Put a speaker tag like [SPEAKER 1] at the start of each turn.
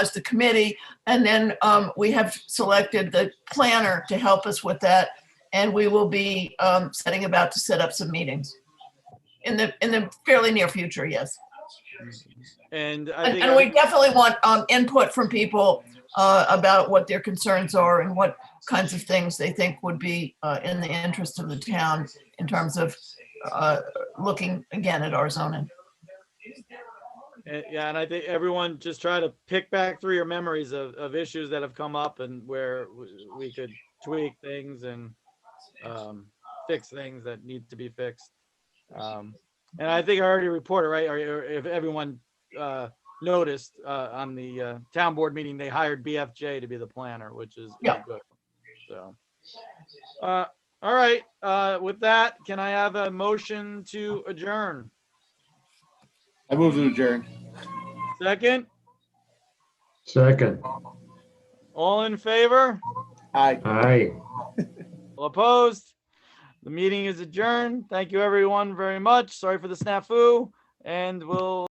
[SPEAKER 1] as the committee. And then um, we have selected the planner to help us with that. And we will be um, setting about to set up some meetings in the, in the fairly near future, yes.
[SPEAKER 2] And I
[SPEAKER 1] And
[SPEAKER 2] think,
[SPEAKER 1] and we
[SPEAKER 2] I-
[SPEAKER 1] definitely want um, input from people uh, about what their concerns are and what kinds of things they think would be uh, in the interest of the town in terms of uh, looking again at our zoning.
[SPEAKER 2] eh, yeah, and I think everyone just try to pick back through your memories of, of issues that have come up and where w- we could tweak things and um, fix things that need to be fixed. Um, And I think I already reported, right, or or if everyone uh, noticed uh, on the uh, town board meeting, they hired BFJ to be the planner, which is is
[SPEAKER 1] Yeah.
[SPEAKER 2] good. So. uh, All right, uh, with that, can I have a motion to adjourn?
[SPEAKER 3] I move to adjourn.
[SPEAKER 2] Second?
[SPEAKER 4] Second,
[SPEAKER 2] All in favor?
[SPEAKER 3] Aye.
[SPEAKER 4] aye.
[SPEAKER 2] All opposed? The meeting is adjourned. Thank you, everyone, very much. Sorry for the snafu, and we'll.